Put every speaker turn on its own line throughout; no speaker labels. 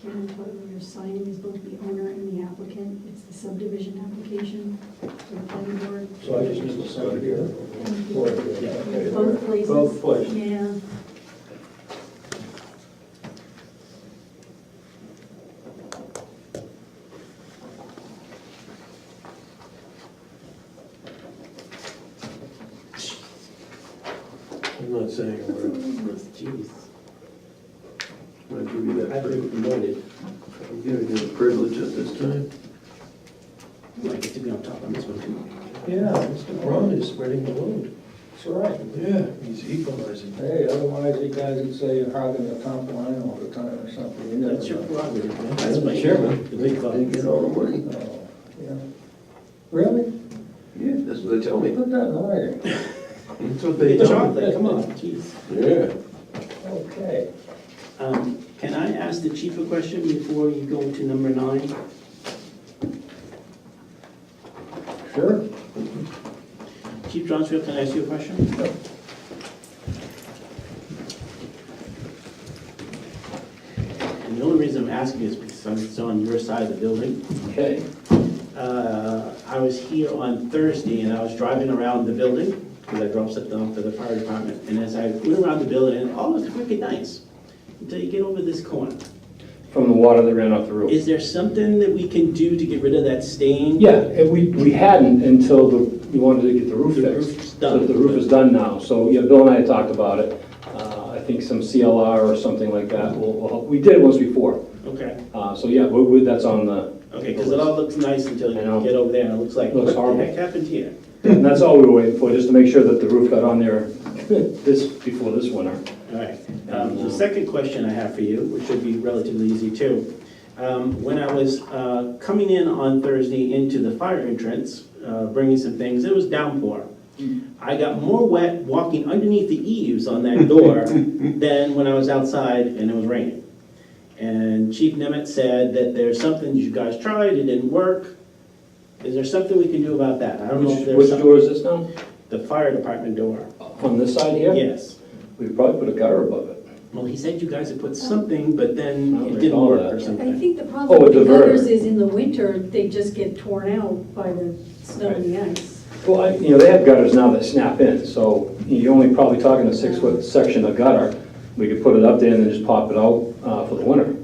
Karen, what we're signing is both the owner and the applicant. It's the subdivision application for the planning board.
So I just need to sign here.
Thank you.
Or here. Okay.
Both places.
Both places.
Yeah.
I'm not saying a
What's in
word.
these? Jeez.
I'm gonna give you
I
that
think
privilege.
noted,
I'm giving you the privilege at this time.
I get to be on top on this one too.
Yeah, Mr. Braun is spreading the load.
That's all right.
Yeah, he's equalizing.
Hey, otherwise you guys would say you're hogging the top line all the time or something. You never
That's your
know.
prerogative, man.
That's my chairman.
The big
Didn't
club.
get all the money.
Oh, yeah. Really?
Yeah, that's what they tell me.
Put that in writing.
That's what they
Big
tell me.
chocolate, come on, jeez.
Yeah.
Okay.
Um, Can I ask the chief a question before you go to number nine?
Sure.
Chief Johnsfield, can I ask you a question?
Yep.
And the only reason I'm asking is because I'm still on your side of the building.
Okay.
uh, I was here on Thursday and I was driving around the building because I dropped something off to the fire department. And as I went around the building, it all looked pretty nice until you get over this corner.
from the water that ran off the roof.
Is there something that we can do to get rid of that stain?
Yeah, and we, we hadn't until the, we wanted to get the roof
The
fixed.
roof's
So
done.
the roof is done now, so, yeah, Bill and I had talked about it. Uh, I think some CLR or something like that will, will help. We did it once before,
Okay,
uh, so yeah, we, we- that's on the,
okay, because it all looks nice until you
I know.
get over there and it looks like, what
Looks
the
horrible.
heck happened here?
and that's all we were waiting for, just to make sure that the roof got on there this, before this winter.
All right, um, the second question I have for you, which should be relatively easy too. Um, when I was, uh, coming in on Thursday into the fire entrance, uh, bringing some things, it was downpour.
Mm.
I got more wet walking underneath the eaves on that door than when I was outside and it was raining. And Chief Nemeth said that there's something you guys tried, it didn't work. Is there something we can do about that? I don't know if
Which,
there's
which
something.
door is this now?
The fire department door,
On this side here?
yes.
We probably put a gutter above it.
Well, he said you guys had put something, but
I
then
don't
it didn't
recall
work or
that.
I
something.
think the problem
Oh, a
with the
diverter.
gutters is in the winter, they just get torn out by the snow and the ice.
Well, I- you know, they have gutters now that snap in, so you're only probably talking a six-foot section of gutter. We could put it up there and then just pop it out uh, for the winter.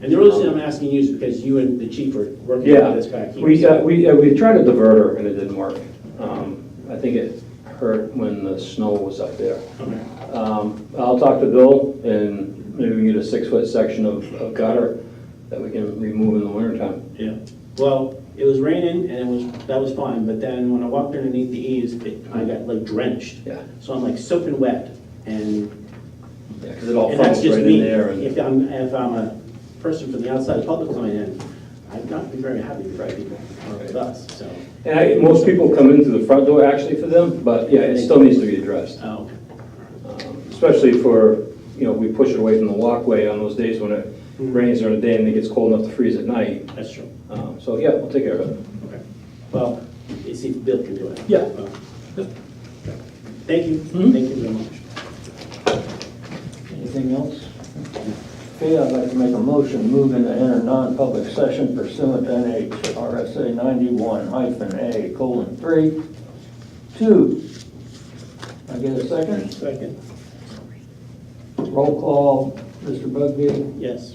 And the reason I'm asking you is because you and the chief were working
Yeah,
on this back here.
we, uh, we, uh, we tried a diverter and it didn't work. Um, I think it hurt when the snow was up there.
Okay.
Um, I'll talk to Bill and maybe we can get a six-foot section of of gutter that we can remove in the wintertime.
Yeah, well, it was raining and it was, that was fine, but then when I walked underneath the eaves, it, I got like drenched.
Yeah,
So I'm like soaking wet and,
yeah, because it all
and that's
funnels
just
right in
me.
there and.
If I'm, if I'm a person from the outside public coming in, I'd not be very happy with people or with us, so.
And I, most people come in through the front door actually for them, but yeah, it still needs to be addressed.
Oh,
Um, Especially for, you know, we push it away from the walkway on those days when it
Mm.
rains during the day and it gets cold enough to freeze at night.
that's true,
Um, So, yeah, we'll take care of it.
okay. Well, you see, if Bill can do it.
Yeah.
Well, Thank you,
Mhm.
thank you very much.
Anything else? Okay, I'd like to make a motion, move into enter non-public session pursuant to NHRSA ninety-one hyphen A colon three, two. I get a second?
Second,
Roll call, Mr. Bugby,
yes.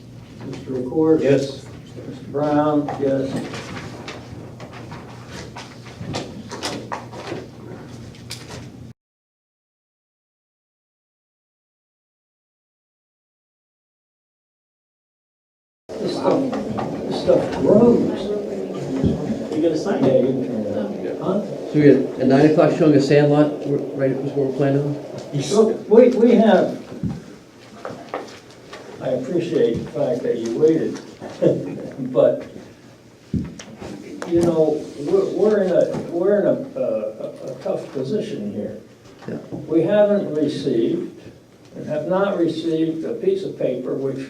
Mr. Record.
Yes.
Mr. Brown, yes. This stuff, this stuff grows.
You gonna sign
Yeah,
it?
you can turn it on. Huh?
So we had at nine o'clock showing a sandlot, right, was what we're planning on?
Look, we, we have, I appreciate the fact that you waited, but, you know, we're, we're in a, we're in a, a- a tough position here.
Yeah.
We haven't received, and have not received a piece of paper which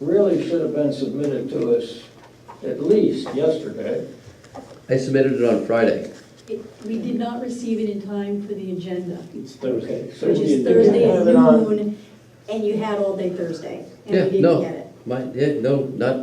really should have been submitted to us at least yesterday.
I submitted it on Friday.
It- We did not receive it in time for the agenda,
It's Thursday.
So
which
you
is
didn't
Thursday at
have it on-
noon, and you had all day Thursday, and
Yeah,
we
no.
didn't get it.
My, yeah, no, not,